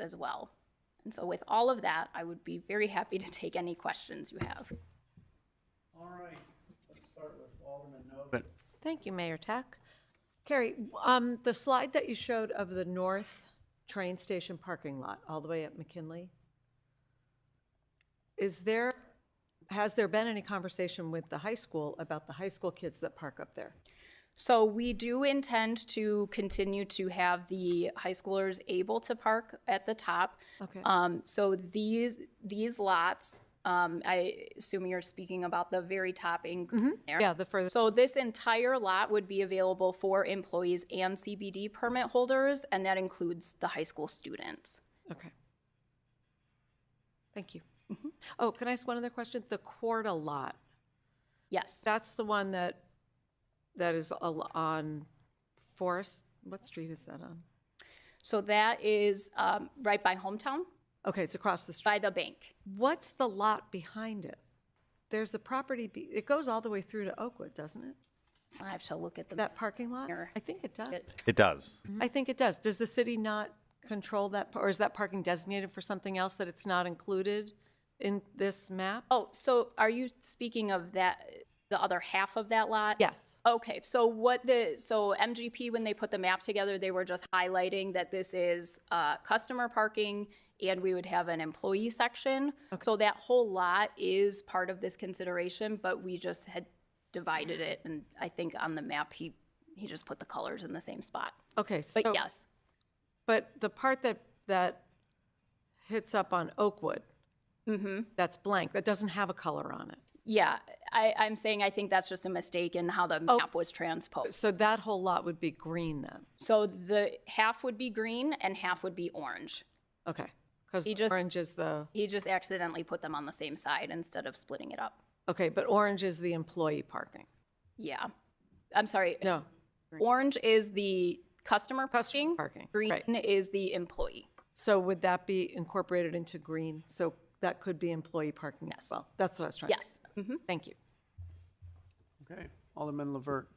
as well. And so with all of that, I would be very happy to take any questions you have. All right, let's start with Alderman Novak. Thank you, Mayor Tech. Carrie, um, the slide that you showed of the north train station parking lot, all the way up McKinley, is there, has there been any conversation with the high school about the high school kids that park up there? So we do intend to continue to have the high schoolers able to park at the top. Okay. Um, so these, these lots, um, I assume you're speaking about the very top in green there. Yeah, the further, So this entire lot would be available for employees and CBD permit holders, and that includes the high school students. okay. Thank you. Oh, can I ask one other question? The Quarta lot, Yes, that's the one that, that is al- on Forest, what street is that on? so that is um, right by hometown, Okay, it's across the street. by the bank. What's the lot behind it? There's a property, be- it goes all the way through to Oakwood, doesn't it? I have to look at the. That parking lot? Sure. I think it does. It does. I think it does. Does the city not control that, par- or is that parking designated for something else that it's not included in this map? Oh, so are you speaking of that, the other half of that lot? Yes. Okay, so what the, so MGP, when they put the map together, they were just highlighting that this is uh, customer parking and we would have an employee section. So that whole lot is part of this consideration, but we just had divided it and I think on the map, he, he just put the colors in the same spot. Okay, so, But yes, but the part that, that hits up on Oakwood, Mm-hmm. that's blank, that doesn't have a color on it. yeah, I, I'm saying I think that's just a mistake in how the map was transposed. So that whole lot would be green then? So the half would be green and half would be orange. Okay, because He just- orange is the, He just accidentally put them on the same side instead of splitting it up. okay, but orange is the employee parking. Yeah. I'm sorry. No, Orange is the customer parking. parking, Green right. is the employee. So would that be incorporated into green? So that could be employee parking as well? That's what I was trying to. Yes. Mm-hmm. Thank you. Okay, Alderman Levert.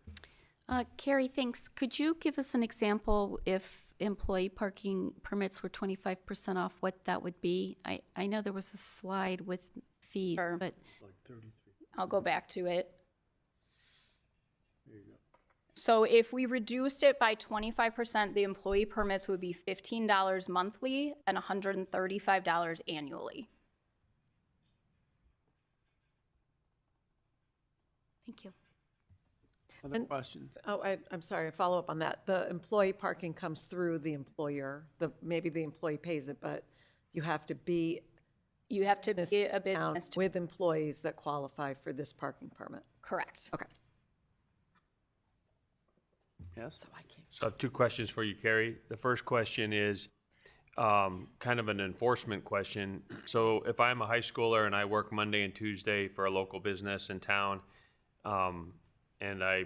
Uh, Carrie, thanks. Could you give us an example if employee parking permits were twenty-five percent off, what that would be? I, I know there was a slide with fees, but I'll go back to it. So if we reduced it by 25%, the employee permits would be $15 monthly and $135 annually. thank you. Other questions? Oh, I, I'm sorry, a follow-up on that. The employee parking comes through the employer, the, maybe the employee pays it, but you have to be You have to be a down business, to- with employees that qualify for this parking permit. correct. Okay. Yes? I can't. So I have two questions for you, Carrie. The first question is um, kind of an enforcement question. So if I'm a high schooler and I work Monday and Tuesday for a local business in town, um, and I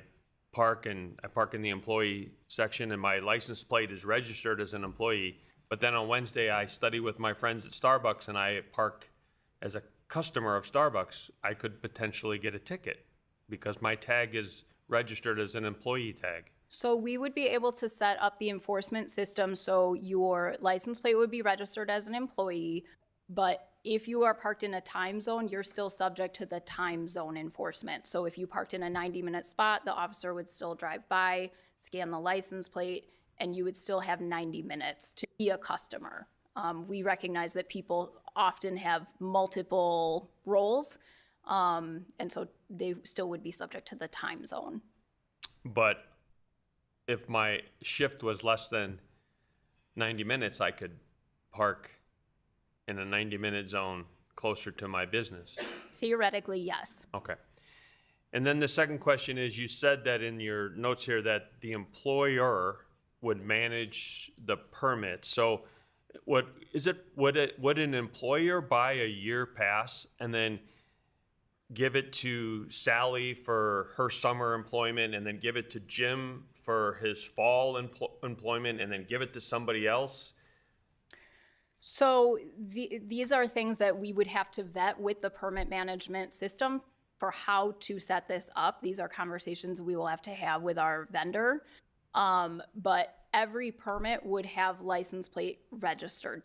park and I park in the employee section and my license plate is registered as an employee, but then on Wednesday I study with my friends at Starbucks and I park as a customer of Starbucks, I could potentially get a ticket because my tag is registered as an employee tag. So we would be able to set up the enforcement system so your license plate would be registered as an employee, but if you are parked in a time zone, you're still subject to the time zone enforcement. So if you parked in a 90-minute spot, the officer would still drive by, scan the license plate, and you would still have 90 minutes to be a customer. Um, We recognize that people often have multiple roles, um, and so they still would be subject to the time zone. But if my shift was less than 90 minutes, I could park in a 90 minute zone closer to my business. Theoretically, yes. Okay. And then the second question is you said that in your notes here that the employer would manage the permit. So what is it would it would an employer buy a year pass and then give it to Sally for her summer employment and then give it to Jim for his fall empl- employment and then give it to somebody else? So the, these are things that we would have to vet with the permit management system for how to set this up. These are conversations we will have to have with our vendor. Um, but every permit would have license plate registered